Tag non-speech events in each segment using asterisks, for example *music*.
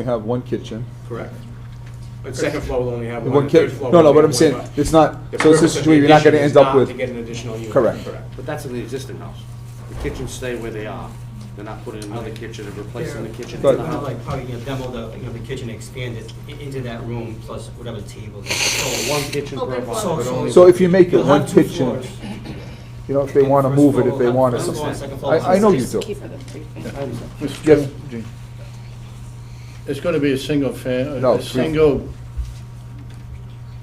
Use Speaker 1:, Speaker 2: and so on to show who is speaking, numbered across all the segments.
Speaker 1: We have one kitchen.
Speaker 2: Correct. But second floor will only have one,
Speaker 1: One
Speaker 2: the third
Speaker 1: kitchen,
Speaker 2: floor.
Speaker 1: no,
Speaker 2: will
Speaker 1: no,
Speaker 2: only
Speaker 1: but
Speaker 2: have
Speaker 1: I'm saying,
Speaker 2: one, but
Speaker 1: it's not,
Speaker 2: the
Speaker 1: so it's a
Speaker 2: purpose of the
Speaker 1: situation you're not gonna
Speaker 2: addition is
Speaker 1: end up
Speaker 2: not
Speaker 1: with.
Speaker 2: To get an additional unit.
Speaker 1: Correct.
Speaker 3: But that's in the existing house. The kitchens stay where they are. They're not putting another kitchen and replacing the kitchen in
Speaker 1: Right.
Speaker 3: the
Speaker 4: Kind of
Speaker 3: house.
Speaker 4: like how you demo the, you know, the kitchen, expand it i- into that room plus whatever table. So
Speaker 3: One kitchen per
Speaker 5: Open
Speaker 3: apartment,
Speaker 5: floor.
Speaker 3: but only-
Speaker 1: So if you make it
Speaker 4: You'll
Speaker 1: one
Speaker 4: have two
Speaker 1: kitchen,
Speaker 4: floors.
Speaker 1: you know, if they
Speaker 4: And
Speaker 1: wanna
Speaker 4: first
Speaker 1: move it,
Speaker 4: floor
Speaker 1: if they
Speaker 4: will have
Speaker 1: wanna
Speaker 4: first floor and
Speaker 1: something.
Speaker 4: second floor
Speaker 1: I, I know you do.
Speaker 5: Keep it at three feet.
Speaker 1: Mr. Yes, Gene.
Speaker 6: It's gonna be a single fan,
Speaker 1: No,
Speaker 6: a
Speaker 1: three.
Speaker 6: single,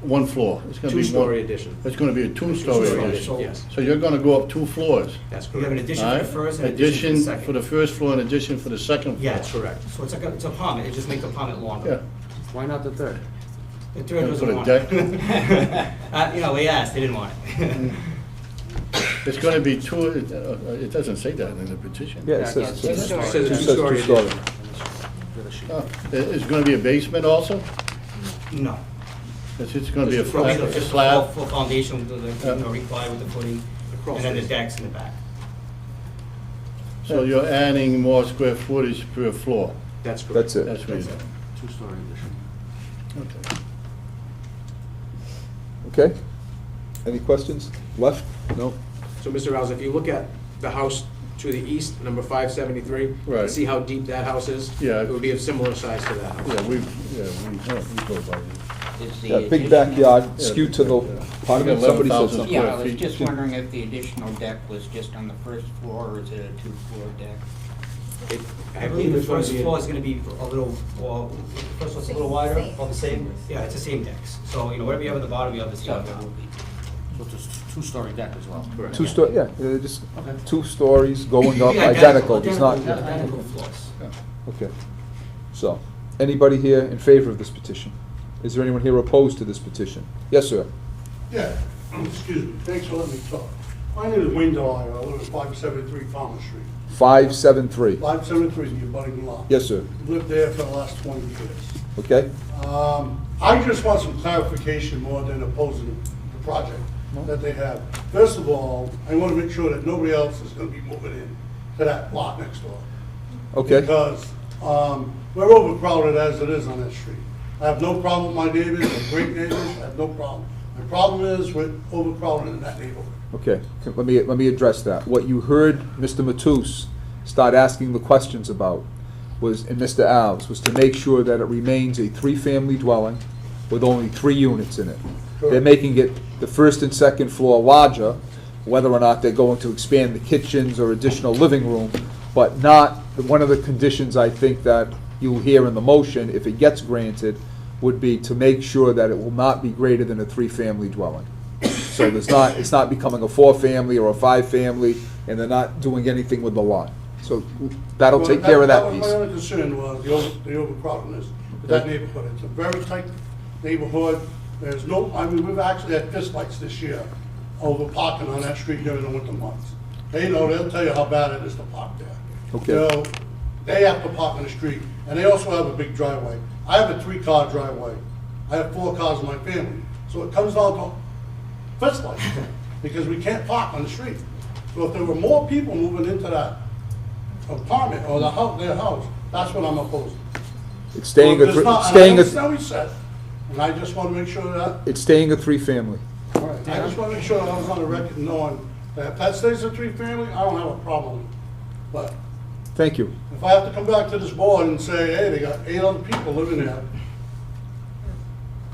Speaker 6: one floor. It's gonna be one.
Speaker 2: Two-story addition.
Speaker 6: It's gonna be a two-story
Speaker 4: Two-story
Speaker 6: addition.
Speaker 4: addition.
Speaker 2: Yes,
Speaker 6: So you're gonna go up two floors.
Speaker 2: that's
Speaker 4: You have an
Speaker 2: correct.
Speaker 4: addition for the
Speaker 6: alright?
Speaker 4: first and addition for the second.
Speaker 6: for the first floor and addition for the second floor.
Speaker 4: Yeah.
Speaker 2: That's correct.
Speaker 4: So it's like, a- it's a apartment, it just makes the apartment
Speaker 6: Yeah.
Speaker 4: longer.
Speaker 3: Why not the third?
Speaker 4: The third
Speaker 6: And
Speaker 4: doesn't
Speaker 6: put a
Speaker 4: want
Speaker 6: deck?
Speaker 4: it. *laughs* Uh, you know, we asked, they didn't want it. *laughs*
Speaker 6: It's gonna be two, it uh, it doesn't say that in the petition.
Speaker 1: Yeah, it
Speaker 3: Yeah,
Speaker 1: says.
Speaker 3: yeah,
Speaker 1: it
Speaker 3: two-story.
Speaker 1: says
Speaker 2: Says two-story
Speaker 1: two-story.
Speaker 2: addition.
Speaker 6: Oh, i- It's gonna be a basement also?
Speaker 4: No.
Speaker 6: It's just gonna be a
Speaker 4: It's probably
Speaker 6: flat,
Speaker 4: the
Speaker 6: a
Speaker 4: first
Speaker 6: slab?
Speaker 4: floor- floor Foundation, with the,
Speaker 6: Yeah.
Speaker 4: you know, required with the footing,
Speaker 2: crawl
Speaker 4: and then the
Speaker 2: space.
Speaker 4: decks in the back.
Speaker 6: So you're adding more square footage per floor.
Speaker 2: That's correct.
Speaker 1: That's it.
Speaker 6: That's what you're doing.
Speaker 3: Two-story addition.
Speaker 6: Okay.
Speaker 1: Okay? Any questions? Left? No?
Speaker 2: So, Mr. Rouse, if you look at the house to the east, number 573,
Speaker 6: Right.
Speaker 2: see how deep that house is?
Speaker 6: Yeah.
Speaker 2: It would be of similar size to that house.
Speaker 6: Yeah, we, yeah, we, yeah, we go by this.
Speaker 7: Is the
Speaker 1: Yeah, big
Speaker 7: addition-
Speaker 1: backyard,
Speaker 6: Yeah,
Speaker 1: skewed
Speaker 6: big
Speaker 1: to the,
Speaker 6: backyard.
Speaker 1: pardon me, somebody said
Speaker 6: 11,000
Speaker 1: something.
Speaker 7: Yeah, I was
Speaker 6: feet.
Speaker 7: just wondering if the additional deck was just on the first floor, or is it a two-floor deck?
Speaker 2: It-
Speaker 4: I believe the
Speaker 2: it's gonna
Speaker 4: first
Speaker 2: be a-
Speaker 4: floor is gonna be a little, or, first floor's a little wider,
Speaker 5: Same.
Speaker 4: all the same? Yeah, it's the same decks, so, you know, whatever you have at the bottom, you have the same.
Speaker 7: So
Speaker 4: on
Speaker 7: there
Speaker 4: top.
Speaker 7: will be
Speaker 3: So it's a s- two-story deck as well.
Speaker 2: Correct.
Speaker 1: Two story, yeah, uh, just
Speaker 3: Okay.
Speaker 1: two stories going up,
Speaker 4: Yeah,
Speaker 1: identical, it's not,
Speaker 4: Identical identical floors.
Speaker 1: okay. So, anybody here in favor of this petition? Is there anyone here opposed to this petition? Yes, sir.
Speaker 8: Yeah, excuse me, thanks for letting me talk. My name is Wayne Delia, I live at five seventy-three Palmer Street.
Speaker 1: Five, seven, three.
Speaker 8: Five seventy-three is your budding lot.
Speaker 1: Yes, sir.
Speaker 8: Lived there for the last twenty years.
Speaker 1: Okay?
Speaker 8: Um, I just want some clarification more than opposing the project that they have. First of all, I want to make sure that nobody else is gonna be moving in to that lot next door.
Speaker 1: Okay?
Speaker 8: Because um, we're overcrowded as it is on that street. I have no problem with my neighbors, they're great neighbors, I have no problem. My problem is with overcrowding in that neighborhood.
Speaker 1: Okay, c- let me, let me address that. What you heard Mr. Matus start asking the questions about was, and Mr. Alves, was to make sure that it remains a three-family dwelling with only three units in it. They're
Speaker 8: Correct.
Speaker 1: making it the first and second floor larger, whether or not they're going to expand the kitchens or additional living room, but not, one of the conditions I think that you hear in the motion, if it gets granted, would be to make sure that it will not be greater than a three-family dwelling. So there's not, it's not becoming a four-family or a five-family, and they're not doing anything with the lot. So that'll
Speaker 8: Well,
Speaker 1: take care of that
Speaker 8: was
Speaker 1: piece.
Speaker 8: My only concern was the over- the overcrowdedness of that neighborhood. It's a very tight neighborhood. There's no, I mean, we've actually had fistfights this year over parking on that street during the winter months. They know, they'll tell you how bad it is to park there.
Speaker 1: Okay.
Speaker 8: You know, they have to park on the street, and they also have a big driveway. I have a three-car driveway. I have four cars in my family. So it comes down to
Speaker 1: *laughs*
Speaker 8: fist fights, because we can't park on the street. So if there were more people moving into that apartment or the house, their house, that's what I'm opposed to.
Speaker 1: It's staying
Speaker 8: So
Speaker 1: a,
Speaker 8: if
Speaker 1: three-
Speaker 8: it's not-
Speaker 1: it's staying
Speaker 8: And I understand
Speaker 1: a,
Speaker 8: what you said, and I just want to make sure that,
Speaker 1: it's staying a three-family.
Speaker 8: I just want to make sure that I was on the record knowing that if that stays a three-family, I don't have a problem. But
Speaker 1: Thank you.
Speaker 8: if I have to come back to this board and say, hey, they got eight other people living there,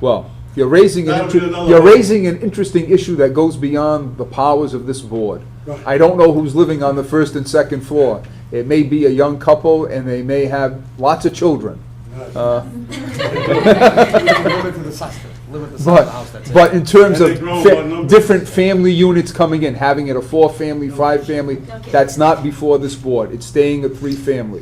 Speaker 1: Well, you're raising an,
Speaker 8: That'll
Speaker 1: inter-
Speaker 8: be another
Speaker 1: you're
Speaker 8: one.
Speaker 1: raising an interesting issue that goes beyond the powers of this board.
Speaker 8: Right.
Speaker 1: I don't know who's living on the first and second floor. It may be a young couple, and they may have lots of children. Uh,
Speaker 3: Limit to the size, limit the size of the house,
Speaker 1: But,
Speaker 3: that's it.
Speaker 1: but in terms
Speaker 8: And
Speaker 1: of
Speaker 8: they grow
Speaker 1: fa-
Speaker 8: by numbers.
Speaker 1: different family units coming in, having it a four-family, five-family,
Speaker 5: Okay.
Speaker 1: that's not before this board. It's staying a three-family.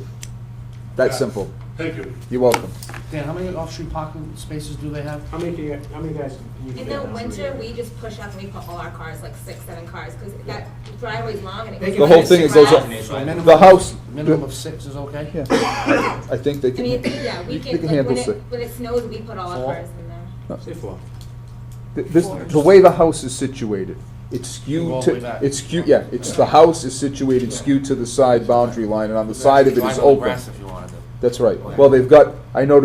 Speaker 1: That's
Speaker 8: Yeah.
Speaker 1: simple.
Speaker 8: thank you.
Speaker 1: You're welcome.
Speaker 3: Dan, how many off-street parking spaces do they have?
Speaker 2: How many, can you- how many guys? can you
Speaker 5: In
Speaker 2: fit
Speaker 5: the
Speaker 2: on?
Speaker 5: winter, we just push up and we put all our cars, like six, seven cars, because that driveway's long and it.
Speaker 4: They
Speaker 5: goes
Speaker 4: can
Speaker 1: The whole
Speaker 4: fit
Speaker 1: thing
Speaker 4: six
Speaker 1: is goes up-
Speaker 4: cars in it, so
Speaker 3: So
Speaker 4: I
Speaker 3: a
Speaker 4: mean,
Speaker 3: minimum-
Speaker 1: The house-
Speaker 3: Minimum of six is okay?
Speaker 1: Yeah. I think they
Speaker 5: I
Speaker 1: can.
Speaker 5: mean, yeah,
Speaker 1: They
Speaker 5: we can,
Speaker 1: can
Speaker 5: like,
Speaker 1: handle
Speaker 5: when it,
Speaker 1: six.
Speaker 5: when it snows, we put all
Speaker 3: Four.
Speaker 5: our cars in there.
Speaker 2: Say four.
Speaker 1: Th- This, the way the house is situated, it's
Speaker 3: Go all
Speaker 1: skewed
Speaker 3: the way
Speaker 1: to,
Speaker 3: back.
Speaker 1: it's skewed, yeah, it's, the house is situated skewed to the side boundary line, and on the side of it
Speaker 3: Drive
Speaker 1: is
Speaker 3: on the
Speaker 1: open.
Speaker 3: grass if you wanted to.
Speaker 1: That's right. Well, they've got, I noticed